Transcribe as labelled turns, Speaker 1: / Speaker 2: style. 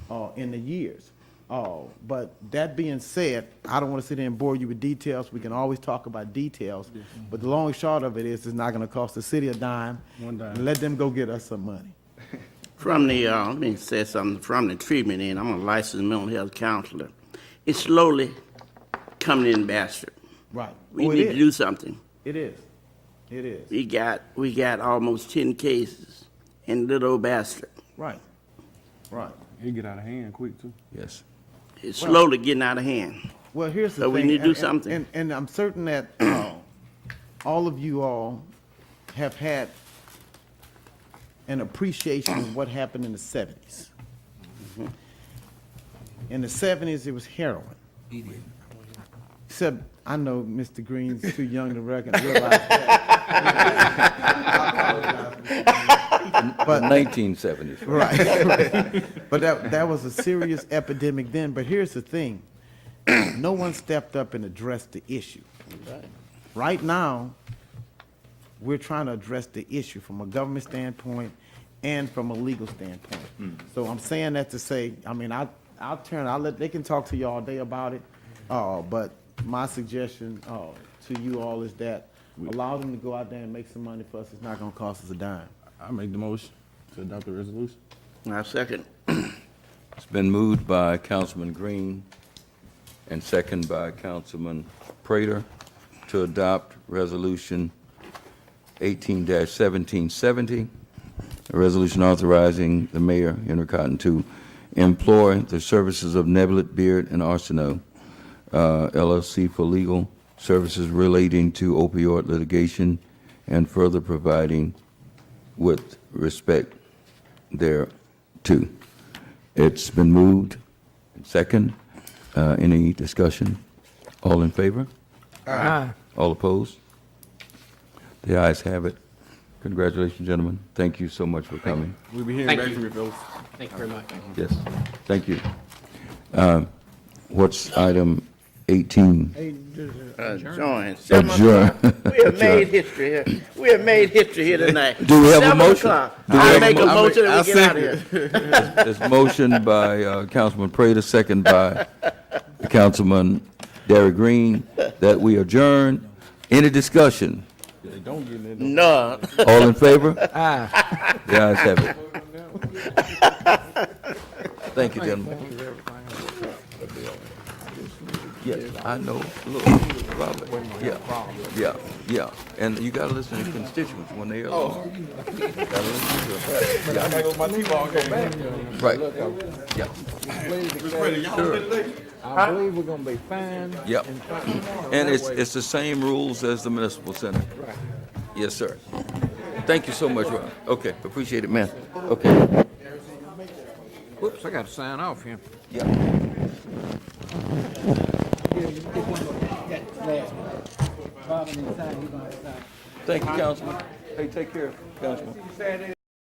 Speaker 1: uh, in the years. Uh, But that being said, I don't want to sit there and bore you with details. We can always talk about details. But the long and short of it is, it's not going to cost the city a dime.
Speaker 2: One dime.
Speaker 1: And Let them go get us some money.
Speaker 3: From the, uh, let me say something, from the treatment end, I'm a licensed mental health counselor. It's slowly coming in bastard.
Speaker 1: Right.
Speaker 3: We
Speaker 1: Oh, it
Speaker 3: need to
Speaker 1: is.
Speaker 3: do something.
Speaker 1: It is. It is.
Speaker 3: We got, we got almost ten cases in little bastard.
Speaker 1: Right. Right.
Speaker 2: He get out of hand quick too.
Speaker 4: Yes.
Speaker 3: It's slowly getting out of hand.
Speaker 1: Well, here's the
Speaker 3: So
Speaker 1: thing.
Speaker 3: we need to
Speaker 1: and-
Speaker 3: do
Speaker 1: and-
Speaker 3: something.
Speaker 1: And, and I'm certain that uh, all of you all have had an appreciation of what happened in the 70s. In the 70s, it was heroin. Except, I know Mr. Green's too young to recognize that. But-
Speaker 4: 1970s.
Speaker 1: Right. but that that was a serious epidemic then. But here's the thing: no one stepped up and addressed the issue. Right now, we're trying to address the issue from a government standpoint and from a legal standpoint. So I'm saying that to say, I mean, I I'll turn. I'll let they can talk to you all day about it. Uh, but my suggestion uh, to you all is that. Allow them to go out there and make some money for us. It's not going to cost us a dime.
Speaker 2: I make the motion to adopt the resolution.
Speaker 3: Now, second,
Speaker 4: It's been moved by Councilman Green and second by Councilman Prater to adopt Resolution 18-1770, a resolution authorizing the mayor, Henry Cotton, to employ the services of Nebelit Beard and Arsenault uh, LLC for legal services relating to opioid litigation and further providing with respect thereto. It's been moved. Second, Uh, any discussion? All in favor? All opposed? The ayes have it. Congratulations, gentlemen. Thank you so much for coming.
Speaker 2: We'll be hearing
Speaker 5: Thank
Speaker 2: back
Speaker 5: you.
Speaker 2: from you fellas.
Speaker 5: Thank you very much.
Speaker 4: Yes, thank you. Uh, What's item 18?
Speaker 3: uh, join. Seven
Speaker 4: Adjourn.
Speaker 3: o'clock. We have made history here. We have made history here tonight.
Speaker 4: Do we have a
Speaker 3: Seven
Speaker 4: motion?
Speaker 3: o'clock.
Speaker 4: Do
Speaker 3: I
Speaker 4: we have a
Speaker 3: make a
Speaker 4: mo- I
Speaker 3: motion and we
Speaker 2: I
Speaker 3: get out of here.
Speaker 4: It's motion by uh, Councilman Prater, second by Councilman Derrick Green, that we adjourn. Any discussion?
Speaker 2: They don't get in there.
Speaker 3: No.
Speaker 4: All in favor? Aye. The ayes have it. Thank you, gentlemen. Yeah, I know, look, Robert, yeah, yeah, yeah, and you gotta listen to your constituents when they are. along. Gotta listen to 'em.
Speaker 2: My
Speaker 6: Mm-hmm.
Speaker 2: T-ball go back.
Speaker 4: Right, yeah,
Speaker 6: I believe we're gonna be fine.
Speaker 4: yeah. And it's, it's the same rules as the municipal center. Right. Yes, sir. Thank you so much, Rob. Okay, appreciate it, man. Okay.
Speaker 6: Whoops, I gotta sign off here.
Speaker 4: Yeah. Thank you, Councilman. Hey, take care, Councilman.